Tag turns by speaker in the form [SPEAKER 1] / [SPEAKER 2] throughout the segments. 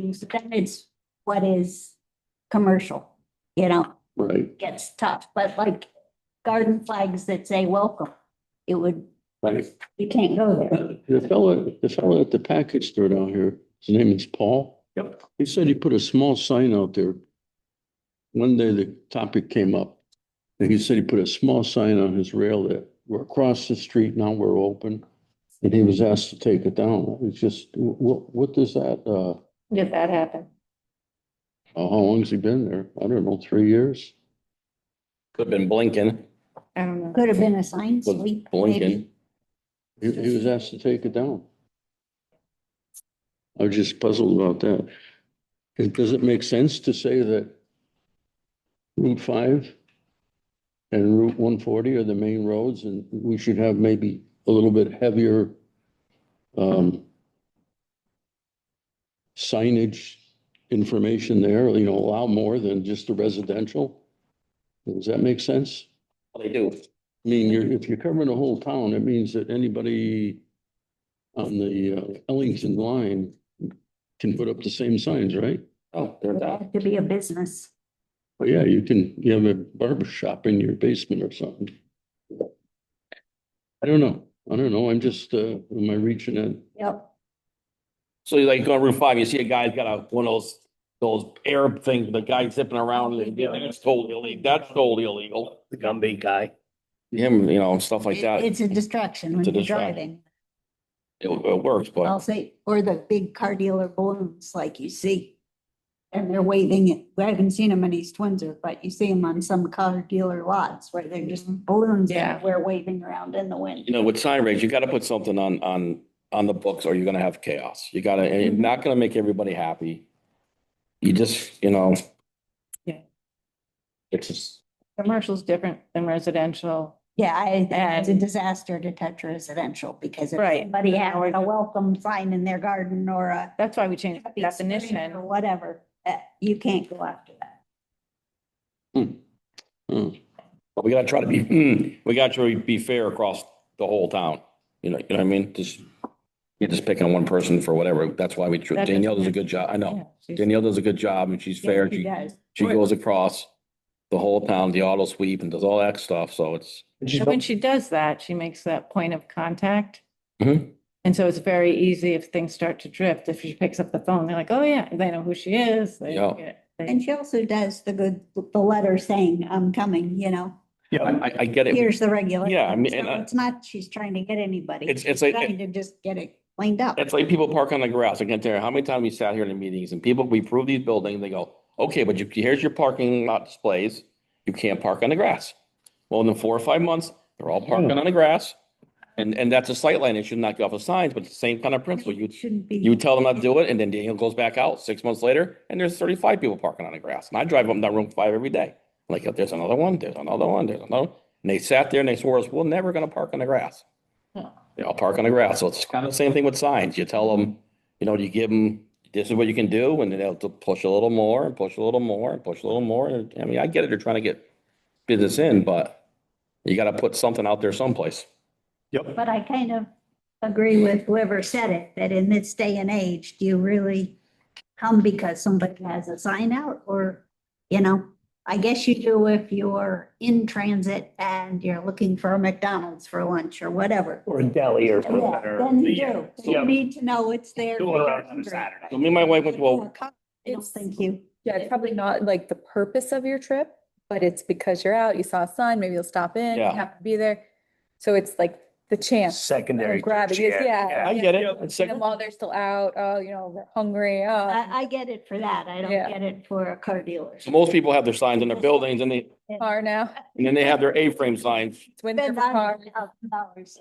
[SPEAKER 1] use, but then it's what is commercial, you know,
[SPEAKER 2] Right,
[SPEAKER 1] gets tough, but like garden flags that say welcome, it would,
[SPEAKER 2] right.
[SPEAKER 1] you can't go there.
[SPEAKER 2] The fellow, the fellow at the package store down here, his name is Paul. Yep. He said he put a small sign out there. One day the topic came up. And he said he put a small sign on his rail that we're across the street, now we're open. And he was asked to take it down. It's just, what, what does that, uh,
[SPEAKER 3] Did that happen?
[SPEAKER 2] how long's he been there? I don't know, three years?
[SPEAKER 4] Could have been blinking,
[SPEAKER 3] I don't know.
[SPEAKER 1] Could have been a sign sweep. maybe.
[SPEAKER 4] blinking.
[SPEAKER 2] He, he was asked to take it down. I was just puzzled about that. It- Does it make sense to say that Route five and Route one forty are the main roads and we should have maybe a little bit heavier um, signage information there, you know, allow more than just the residential? Does that make sense?
[SPEAKER 4] They do.
[SPEAKER 2] I mean, you're, if you're covering the whole town, it means that anybody on the uh, Ellington line can put up the same signs, right?
[SPEAKER 4] Oh, they're
[SPEAKER 1] It
[SPEAKER 4] down.
[SPEAKER 1] had To be a business.
[SPEAKER 2] Well, yeah, you can, you have a barber shop in your basement or something. I don't know. I don't know. I'm just, uh, am I reaching it?
[SPEAKER 1] Yep.
[SPEAKER 4] So you like go on Route five, you see a guy's got a, one of those, those Arab things, the guy zipping around and yeah, that's totally illegal, that's totally illegal. The Gumby guy. Him, you know, and stuff like
[SPEAKER 1] It-
[SPEAKER 4] that. It,
[SPEAKER 1] It's a distraction when
[SPEAKER 4] It's a
[SPEAKER 1] you're
[SPEAKER 4] distraction.
[SPEAKER 1] driving.
[SPEAKER 4] it Oh. works,
[SPEAKER 1] I'll
[SPEAKER 4] but
[SPEAKER 1] say, or the big car dealer balloons like you see. And they're waving it. I haven't seen them in East Windsor, but you see them on some car dealer lots where they're just balloons
[SPEAKER 3] Yeah.
[SPEAKER 1] and we're waving around in the wind.
[SPEAKER 4] you know, with sign regs, you gotta put something on, on, on the books or you're gonna have chaos. You gotta, and it's not gonna make everybody happy. You just, you know.
[SPEAKER 3] Yeah.
[SPEAKER 4] It's just,
[SPEAKER 3] Commercial's different than residential.
[SPEAKER 1] Yeah, I, it's a
[SPEAKER 3] And-
[SPEAKER 1] disaster to touch residential because if
[SPEAKER 3] Right.
[SPEAKER 1] somebody had a welcome sign in their garden or a
[SPEAKER 3] That's why we changed the
[SPEAKER 1] happy spring or
[SPEAKER 3] definition.
[SPEAKER 1] whatever, uh, you can't go after that.
[SPEAKER 2] Hmm.
[SPEAKER 4] but we gotta try to be, hmm, we gotta try to be fair across the whole town. You know, you know what I mean? Just, you're just picking on one person for whatever. That's why we,
[SPEAKER 3] That doesn't
[SPEAKER 4] Danielle does a good job. I know.
[SPEAKER 3] Yeah, she's-
[SPEAKER 4] Danielle does a good job and she's fair.
[SPEAKER 1] Yes, it
[SPEAKER 4] She,
[SPEAKER 1] does.
[SPEAKER 4] she goes across the whole town, the auto sweep and does all that stuff. So it's,
[SPEAKER 3] And When she does that, she makes that point of contact.
[SPEAKER 4] Mhm.
[SPEAKER 3] And so it's very easy if things start to drift, if she picks up the phone, they're like, oh yeah, they know who she is. They
[SPEAKER 4] Yeah.
[SPEAKER 3] get-
[SPEAKER 1] And
[SPEAKER 3] they-
[SPEAKER 1] she also does the good, the letter saying, I'm coming, you know,
[SPEAKER 4] I, I- I get it.
[SPEAKER 1] here's the regulation.
[SPEAKER 4] Yeah, I mean,
[SPEAKER 1] So
[SPEAKER 4] and I-
[SPEAKER 1] It's not, she's trying to get anybody.
[SPEAKER 4] It's, it's
[SPEAKER 1] She's
[SPEAKER 4] like,
[SPEAKER 1] Trying to just get it cleaned up.
[SPEAKER 4] It's like people park on the grass. I can't tell you how many times we sat here in the meetings and people, we approve these buildings, they go, okay, but you, here's your parking lot displays. You can't park on the grass. Well, in the four or five months, they're all parking on the grass. And, and that's a sight line. It should not go off the signs, but it's the same kind of principle. You,
[SPEAKER 1] It Shouldn't be.
[SPEAKER 4] you tell them not to do it and then Daniel goes back out six months later and there's thirty-five people parking on the grass. And I drive up and down room five every day. Like, "Oh, there's another one, there's another one, there's another. And they sat there and they swore us, we're never gonna park on the grass. They all park on the grass. So it's kind of the same thing with signs. You tell them, you know, you give them, this is what you can do, and then they'll push a little more and push a little more and push a little more. And I mean, I get it, they're trying to get business in, but you gotta put something out there someplace.
[SPEAKER 1] But I kind of agree with whoever said it, that in this day and age, do you really come because somebody has a sign out or, you know? I guess you do if you're in transit and you're looking for a McDonald's for lunch or whatever.
[SPEAKER 5] Or a deli or something.
[SPEAKER 1] Yeah,
[SPEAKER 5] or-
[SPEAKER 1] Then you
[SPEAKER 5] Yeah.
[SPEAKER 1] do. You need to know it's there.
[SPEAKER 5] Go around on a Saturday.
[SPEAKER 4] So me and my wife went, well,
[SPEAKER 1] I don't think you.
[SPEAKER 6] Yeah, it's probably not like the purpose of your trip, but it's because you're out, you saw a sign, maybe you'll stop in, you
[SPEAKER 4] Yeah.
[SPEAKER 6] happen to be there. So it's like the chance.
[SPEAKER 5] Secondary.
[SPEAKER 6] Grab it,
[SPEAKER 5] chair,
[SPEAKER 6] yeah.
[SPEAKER 4] I get it. It's
[SPEAKER 6] And
[SPEAKER 4] like-
[SPEAKER 6] then while they're still out, oh, you know, they're hungry, oh,
[SPEAKER 1] I, I get it for that. I don't
[SPEAKER 6] Yeah.
[SPEAKER 1] get it for a car dealer.
[SPEAKER 4] So most people have their signs in their buildings and they,
[SPEAKER 6] car now,
[SPEAKER 4] and then they have their A-frame signs.
[SPEAKER 6] it's winter for
[SPEAKER 1] Spend a
[SPEAKER 6] car.
[SPEAKER 1] hundred thousand dollars.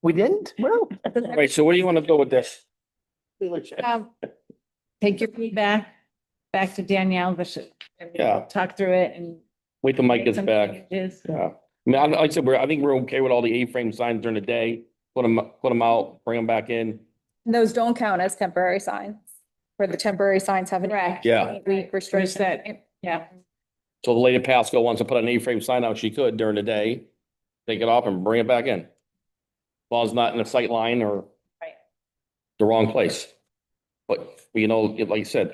[SPEAKER 5] We didn't? Well.
[SPEAKER 4] Right, so what do you want to do with this?
[SPEAKER 3] Um, Take your feedback back to Danielle, the sh- and we'll
[SPEAKER 4] Yeah.
[SPEAKER 3] Talk through it and.
[SPEAKER 4] Wait till Mike
[SPEAKER 3] make
[SPEAKER 4] gets
[SPEAKER 3] some
[SPEAKER 4] back.
[SPEAKER 3] changes.
[SPEAKER 4] Yeah, I mean, I- like I said, we're, I think we're okay with all the A-frame signs during the day. Put them, put them out, bring them back in.
[SPEAKER 6] And Those don't count as temporary signs, where the temporary signs have an.
[SPEAKER 3] Correct.
[SPEAKER 4] Yeah.
[SPEAKER 6] Week
[SPEAKER 3] There's
[SPEAKER 6] restriction.
[SPEAKER 3] that, yeah.
[SPEAKER 4] So the lady at Pasco wants to put an A-frame sign out, she could during the day, take it off and bring it back in. As long as it's not in a sight line or
[SPEAKER 3] Right.
[SPEAKER 4] the wrong place. But, you know, like you said,